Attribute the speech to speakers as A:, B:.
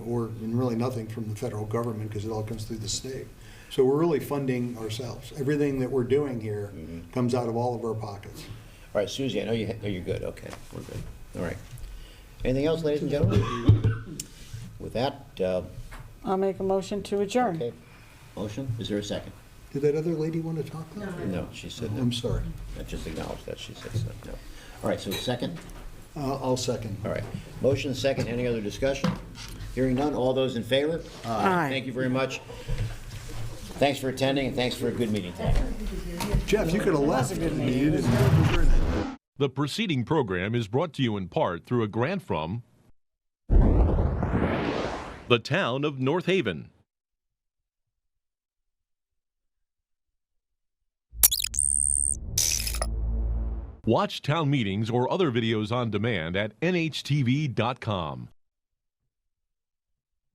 A: or, and really nothing from the federal government because it all comes through the state. So we're really funding ourselves. Everything that we're doing here comes out of all of our pockets.
B: All right, Susie, I know you, oh, you're good, okay, we're good, all right. Anything else, ladies and gentlemen? With that, uh,
C: I'll make a motion to adjourn.
B: okay, motion, is there a second?
A: Did that other lady want to talk? now?
B: No, she said no,
A: I'm sorry.
B: I just acknowledged that, she said so, no. All right, so second,
A: Uh, I'll second.
B: all right, motion, second, any other discussion? Hearing none, all those in favor?
C: Aye.
B: Thank you very much. Thanks for attending, and thanks for a good meeting tonight.
A: Jeff, you could have left. I mean, you didn't-
D: The preceding program is brought to you in part through a grant from the town of North Haven. Watch town meetings or other videos on demand at nhtv.com.